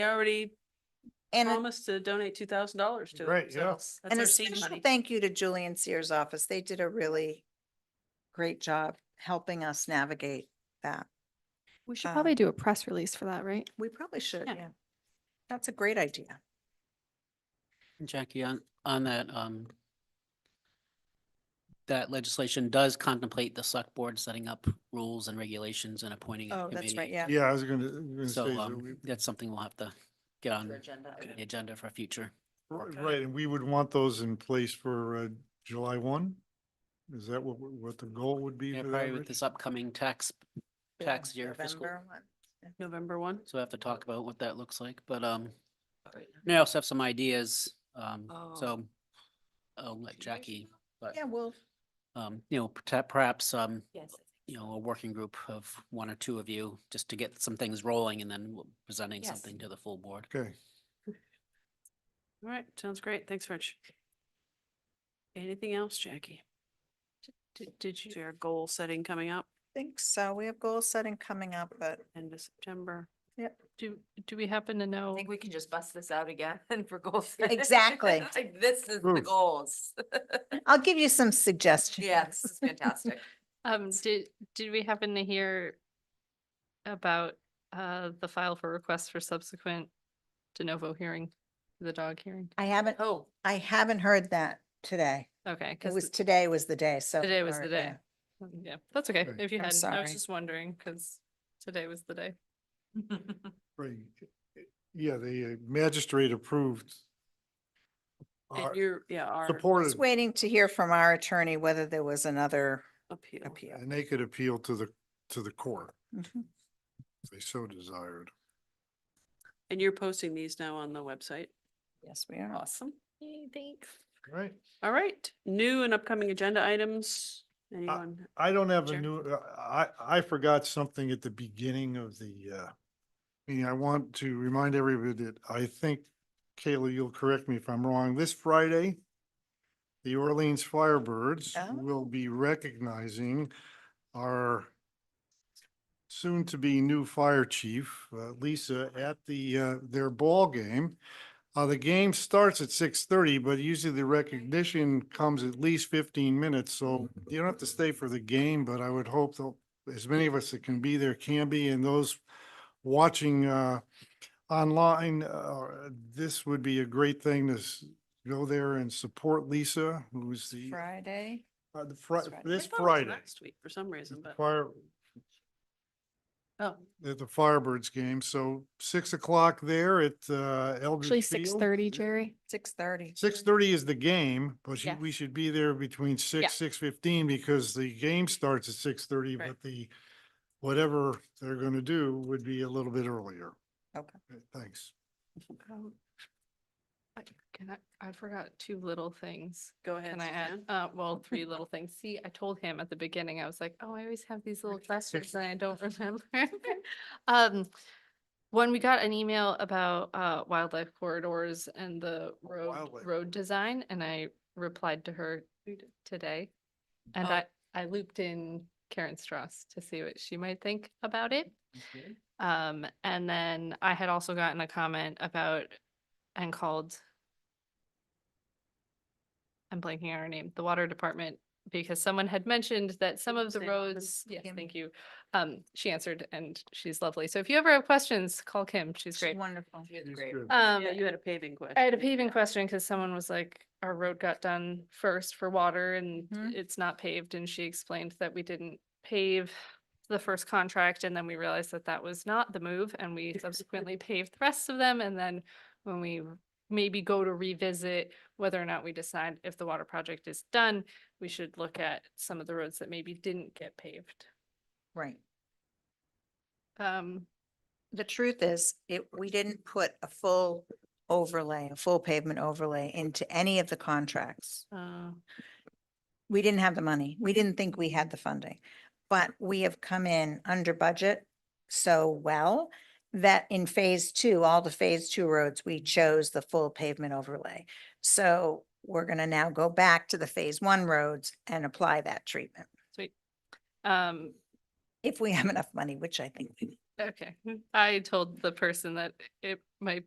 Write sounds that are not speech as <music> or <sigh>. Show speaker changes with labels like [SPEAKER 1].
[SPEAKER 1] They already
[SPEAKER 2] And, a-
[SPEAKER 1] promised to donate two thousand dollars to it.
[SPEAKER 3] Great,
[SPEAKER 1] so
[SPEAKER 3] yeah.
[SPEAKER 1] that's
[SPEAKER 2] and a
[SPEAKER 1] our seed
[SPEAKER 2] special
[SPEAKER 1] money.
[SPEAKER 2] thank you to Julie and Sears office. They did a really great job helping us navigate that.
[SPEAKER 4] We should
[SPEAKER 2] Um,
[SPEAKER 4] probably do a press release for that, right?
[SPEAKER 2] We probably should,
[SPEAKER 1] Yeah.
[SPEAKER 2] yeah. That's a great idea.
[SPEAKER 5] Jackie, on, on that, um, that legislation does contemplate the select board setting up rules and regulations and appointing a
[SPEAKER 2] Oh, that's right,
[SPEAKER 5] committee.
[SPEAKER 2] yeah.
[SPEAKER 3] Yeah, I was gonna, gonna
[SPEAKER 5] So,
[SPEAKER 3] say, that we-
[SPEAKER 5] um, that's something we'll have to get on the
[SPEAKER 2] Agenda.
[SPEAKER 5] agenda for future.
[SPEAKER 3] r- right, and we would want those in place for uh, July one? Is that what, we- what the goal would be?
[SPEAKER 5] Yeah,
[SPEAKER 3] for that,
[SPEAKER 5] probably with
[SPEAKER 3] Rich?
[SPEAKER 5] this upcoming tax, tax year fiscal.
[SPEAKER 2] November one.
[SPEAKER 1] November one.
[SPEAKER 5] So we have to talk about what that looks like, but, um, I also have some ideas, um,
[SPEAKER 1] Oh.
[SPEAKER 5] so I'll let Jackie, but,
[SPEAKER 2] Yeah, well,
[SPEAKER 5] um, you know, perta- perhaps, um,
[SPEAKER 1] Yes.
[SPEAKER 5] you know, a working group of one or two of you, just to get some things rolling and then we'll- presenting
[SPEAKER 1] Yes.
[SPEAKER 5] something to the full board.
[SPEAKER 3] Okay,
[SPEAKER 1] All right, sounds great. Thanks, Rich. Anything else, Jackie? Did, did you, our goal setting coming up
[SPEAKER 2] think so. We have goal setting coming up, but
[SPEAKER 1] end of September?
[SPEAKER 6] Do, do we happen to know?
[SPEAKER 7] I think we can just bust this out again <laughs> for goals.
[SPEAKER 2] Exactly.
[SPEAKER 7] Like, This is the
[SPEAKER 3] Oof.
[SPEAKER 7] goals. <laughs>
[SPEAKER 2] I'll give you some suggestions.
[SPEAKER 7] Yeah, this is fantastic.
[SPEAKER 6] Um, did, did we happen to hear about, uh, the file for requests for subsequent de novo hearing, the dog hearing?
[SPEAKER 2] I haven't,
[SPEAKER 7] Oh,
[SPEAKER 2] I haven't heard that today.
[SPEAKER 6] Okay,
[SPEAKER 2] It was,
[SPEAKER 6] because,
[SPEAKER 2] today was the day, so.
[SPEAKER 6] Today was
[SPEAKER 2] far,
[SPEAKER 6] the day. Mm,
[SPEAKER 2] yeah.
[SPEAKER 6] yeah, that's okay.
[SPEAKER 3] Right.
[SPEAKER 6] If you
[SPEAKER 2] I'm
[SPEAKER 6] hadn't, I was
[SPEAKER 2] sorry.
[SPEAKER 6] just wondering, because today was the day.
[SPEAKER 3] right. Yeah, the uh, magistrate approved.
[SPEAKER 1] And
[SPEAKER 3] our
[SPEAKER 1] you're, yeah, our
[SPEAKER 2] Just
[SPEAKER 3] Supported,
[SPEAKER 2] waiting to hear from our attorney whether there was another
[SPEAKER 1] appeal.
[SPEAKER 2] appeal.
[SPEAKER 3] and they could appeal to the, to the court
[SPEAKER 2] Mhm.
[SPEAKER 3] if they so desired.
[SPEAKER 1] And you're posting these now on the website.
[SPEAKER 2] Yes, we are.
[SPEAKER 1] Awesome.
[SPEAKER 6] Thanks.
[SPEAKER 3] Right.
[SPEAKER 1] All right, new and upcoming agenda items.
[SPEAKER 3] Uh,
[SPEAKER 1] Anyone?
[SPEAKER 3] I don't have a
[SPEAKER 1] Sure.
[SPEAKER 3] new, uh, I, I forgot something at the beginning of the, uh, meeting. I want to remind everybody that I think, Kayla, you'll correct me if I'm wrong, this Friday, the Orleans Firebirds
[SPEAKER 2] Oh.
[SPEAKER 3] will be recognizing our soon-to-be new fire chief, uh, Lisa, at the, uh, their ball game. Uh, the game starts at six thirty, but usually the recognition comes at least fifteen minutes, so you don't have to stay for the game, but I would hope that as many of us that can be there can be, and those watching, uh, online, uh, this would be a great thing to s- go there and support Lisa, who's the,
[SPEAKER 2] Friday.
[SPEAKER 3] uh, the Fri-
[SPEAKER 2] This Friday.
[SPEAKER 1] I
[SPEAKER 3] this
[SPEAKER 1] thought it was
[SPEAKER 3] Friday.
[SPEAKER 1] Last week for some reason, but,
[SPEAKER 3] Fire,
[SPEAKER 1] oh,
[SPEAKER 3] at the Firebirds game, so six o'clock there at, uh,
[SPEAKER 4] Actually,
[SPEAKER 3] Eldridge
[SPEAKER 4] six
[SPEAKER 3] Field.
[SPEAKER 4] thirty, Jerry.
[SPEAKER 2] Six thirty.
[SPEAKER 3] Six thirty is the game, but she-
[SPEAKER 6] Yeah.
[SPEAKER 3] we should be there between
[SPEAKER 6] Yeah.
[SPEAKER 3] six, six fifteen because the game starts at six thirty,
[SPEAKER 1] Right.
[SPEAKER 3] but the whatever they're gonna do would be a little bit earlier.
[SPEAKER 2] Okay.
[SPEAKER 3] Thanks.
[SPEAKER 6] I, can I, I forgot two little things.
[SPEAKER 1] go ahead.
[SPEAKER 6] Can I add,
[SPEAKER 1] Suzanne.
[SPEAKER 6] uh, well,
[SPEAKER 1] <laughs>
[SPEAKER 6] three little things. See, I told him at the beginning, I was like, oh, I always have these
[SPEAKER 1] <laughs>
[SPEAKER 6] little questions and I don't remember. <laughs> Um, when we got an email about, uh, wildlife corridors and
[SPEAKER 1] Oh,
[SPEAKER 6] the road,
[SPEAKER 3] Wildlife.
[SPEAKER 6] road design, and I replied to her today. And
[SPEAKER 1] Oh.
[SPEAKER 6] I, I looped in Karen Strauss to see what she might think about it. Um, and then I had also gotten a comment about and called I'm blanking on her name, the water department, because someone had mentioned that some of the
[SPEAKER 1] Suzanne Hoffman.
[SPEAKER 6] roads, yes,
[SPEAKER 2] Kim.
[SPEAKER 6] thank you. Um, she answered and she's lovely. So if you ever have questions, call Kim. She's great.
[SPEAKER 2] Wonderful.
[SPEAKER 7] she was
[SPEAKER 3] That's
[SPEAKER 7] great.
[SPEAKER 3] good.
[SPEAKER 6] Um,
[SPEAKER 1] Yeah, you had a paving question.
[SPEAKER 6] I had a paving question because someone was like, our road got done first for water and
[SPEAKER 2] Mhm.
[SPEAKER 6] it's not paved. And she explained that we didn't pave the first contract and then we realized that that was not the move and we subsequently paved the rest of them. And then when we maybe go to revisit whether or not we decide if the water project is done, we should look at some of the roads that maybe didn't get paved.
[SPEAKER 2] Right.
[SPEAKER 6] Um,
[SPEAKER 2] The truth is, it, we didn't put a full overlay, a full pavement overlay into any of the contracts.
[SPEAKER 6] uh,
[SPEAKER 2] We didn't have the money. We didn't think we had the funding. But we have come in under budget so well that in phase two, all the phase two roads, we chose the full pavement overlay. So we're gonna now go back to the phase one roads and apply that treatment
[SPEAKER 6] sweet. Um,
[SPEAKER 2] if we have enough money, which I think we
[SPEAKER 6] Okay, I told the person that it might be.